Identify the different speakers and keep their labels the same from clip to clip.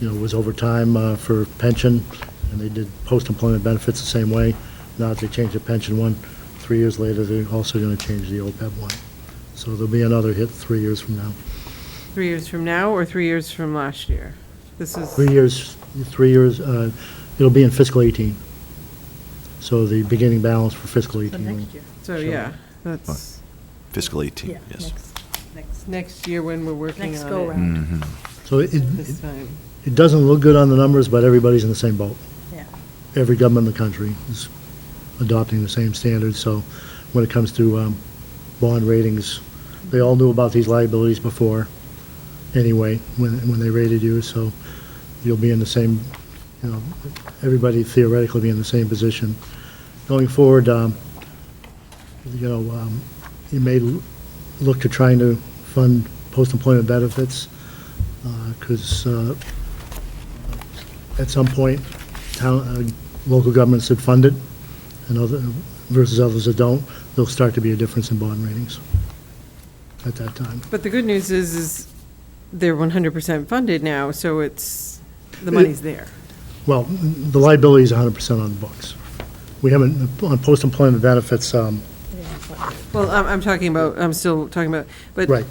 Speaker 1: you know, was overtime uh, for pension, and they did post-employment benefits the same way. Now that they changed the pension one, three years later, they're also going to change the OPEB one. So there'll be another hit three years from now.
Speaker 2: Three years from now or three years from last year? This is,
Speaker 1: Three years, three years, uh, it'll be in fiscal 18. So the beginning balance for fiscal 18. will-
Speaker 3: next year.
Speaker 2: so yeah, that's
Speaker 4: Fiscal 18, yes.
Speaker 3: Next,
Speaker 2: next year when we're working
Speaker 3: next
Speaker 2: on it.
Speaker 3: go-round,
Speaker 4: Mm-hmm.
Speaker 1: So it,
Speaker 2: This
Speaker 1: it-
Speaker 2: time,
Speaker 1: it doesn't look good on the numbers, but everybody's in the same boat.
Speaker 3: yeah.
Speaker 1: Every government in the country is adopting the same standards, so when it comes to um, bond ratings, they all knew about these liabilities before, anyway, when, when they rated you, so you'll be in the same, you know, everybody theoretically be in the same position. Going forward, um, you know, um, you may l- look to trying to fund post-employment benefits, uh, because at some point, town, uh, local governments that fund it and other, versus others that don't, there'll start to be a difference in bond ratings at that time.
Speaker 2: but the good news is, is they're 100% funded now, so it's, the money's there.
Speaker 1: Well, the liability is 100% on the books. We haven't, on post-employment benefits, um,
Speaker 2: Well, I'm, I'm talking about, I'm still talking about, but
Speaker 1: right,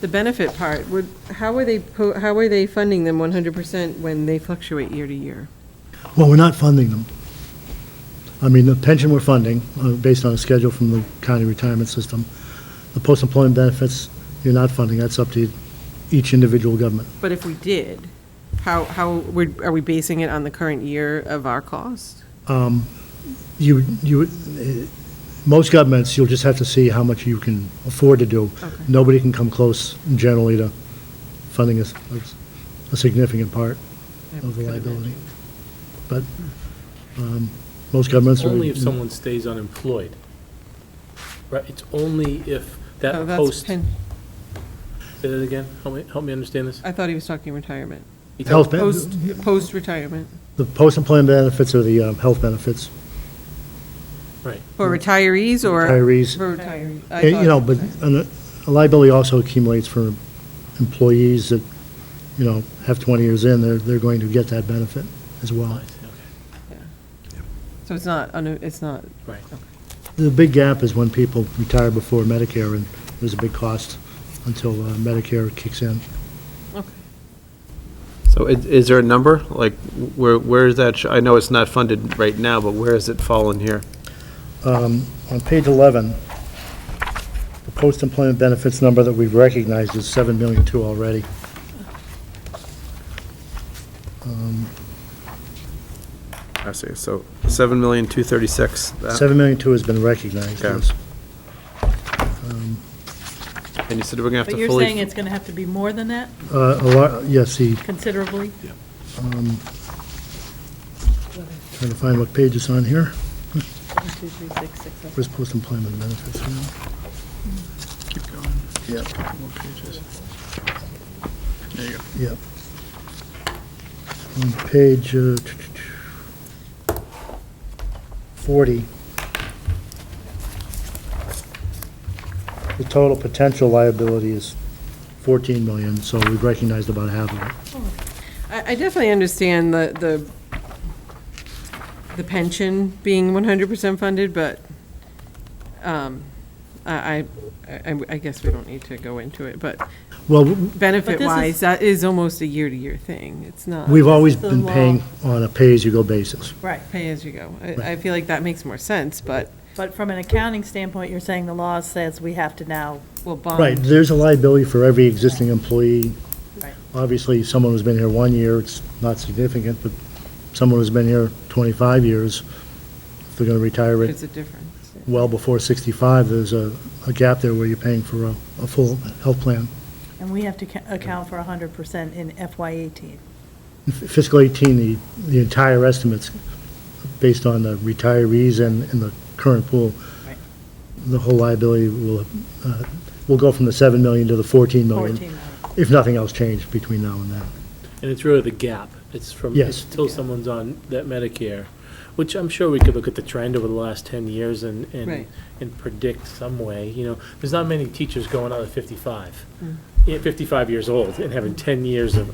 Speaker 2: the benefit part, would, how are they, po- how are they funding them 100% when they fluctuate year to year?
Speaker 1: Well, we're not funding them. I mean, the pension we're funding, uh, based on a schedule from the county retirement system. The post-employment benefits, you're not funding, that's up to each individual government.
Speaker 2: But if we did, how, how, would- are we basing it on the current year of our cost?
Speaker 1: Um, You, you, eh, most governments, you'll just have to see how much you can afford to do.
Speaker 2: Okay.
Speaker 1: Nobody can come close generally to funding a, s- a s- a significant part of the liability. But um, most governments are...
Speaker 5: Only if someone stays unemployed. Right, it's only if
Speaker 2: Oh,
Speaker 5: that
Speaker 2: that's
Speaker 5: post, say
Speaker 2: pen-
Speaker 5: that again, help me, help me understand this.
Speaker 2: I thought he was talking retirement.
Speaker 1: Health, ben-
Speaker 2: Post, post-retirement.
Speaker 1: the post-employment benefits are the um, health benefits.
Speaker 5: Right,
Speaker 2: For retirees or?
Speaker 1: Retirees.
Speaker 2: For retirees. I
Speaker 1: And, You know,
Speaker 2: thought-
Speaker 1: but an- a liability also accumulates for employees that, you know, have 20 years in, they're, they're going to get that benefit as
Speaker 5: Oh,
Speaker 1: well.
Speaker 5: I see, okay,
Speaker 2: So it's not, un- it's not,
Speaker 5: right.
Speaker 1: The big gap is when people retire before Medicare, and there's a big cost until uh, Medicare kicks in.
Speaker 2: okay.
Speaker 6: So i- is there a number? Like, where, where is that? sh- I know it's not funded right now, but where has it fallen here?
Speaker 1: Um, On page 11, the post-employment benefits number that we've recognized is 7 million two already. Um,
Speaker 6: I see, so seven million, two thirty-six.
Speaker 1: Seven million two has been recognized,
Speaker 6: Okay.
Speaker 1: yes.
Speaker 6: And you said we're gonna have to
Speaker 3: But
Speaker 6: fully.
Speaker 3: you're saying it's going to have to be more than that
Speaker 1: Uh, a lot- Yes, the um,
Speaker 3: considerably?
Speaker 1: Trying to find what page it's on here.
Speaker 3: One, two, three, six, six, seven.
Speaker 1: Where's post-employment benefits? Keep going. Yep. There you go. Yep. On page uh, 40, the total potential liability is 14 million, so we've recognized about half of it.
Speaker 2: I, I definitely understand the, the, the pension being 100% funded, but um, I, I, I- I guess we don't need to go into it, but
Speaker 1: Well, w-
Speaker 2: benefit-wise, that is almost a year-to-year thing. It's not
Speaker 1: we've always
Speaker 3: the
Speaker 1: been
Speaker 3: law.
Speaker 1: paying on a pay-as-you-go basis.
Speaker 3: Right,
Speaker 2: pay-as-you-go. I, I feel like that makes more sense, but,
Speaker 3: but from an accounting standpoint, you're saying the law says we have to now,
Speaker 2: well, bond.
Speaker 1: Right, there's a liability for every existing employee.
Speaker 3: Um, Right.
Speaker 1: Obviously, someone who's been here one year, it's not significant, but someone who's been here 25 years, if they're going to retire at
Speaker 2: There's a difference.
Speaker 1: well before 65, there's a, a gap there where you're paying for a, a full health plan.
Speaker 3: and we have to ca- account for 100% in FY '18.
Speaker 1: In Fiscal 18, the, the entire estimates, based on the retirees and, and the current pool,
Speaker 3: Right.
Speaker 1: the whole liability will, uh, will go from the 7 million to the 14 million.
Speaker 3: 14 million.
Speaker 1: If nothing else changed between now and then.
Speaker 5: And it's really the gap. It's from,
Speaker 1: Yes.
Speaker 5: it's till someone's on that Medicare, which I'm sure we could look at the trend over the last 10 years and, and
Speaker 2: Right.
Speaker 5: and predict some way, you know.
Speaker 2: Mm.
Speaker 5: There's not many teachers going out at 55, yeah, 55 years old and having 10 years of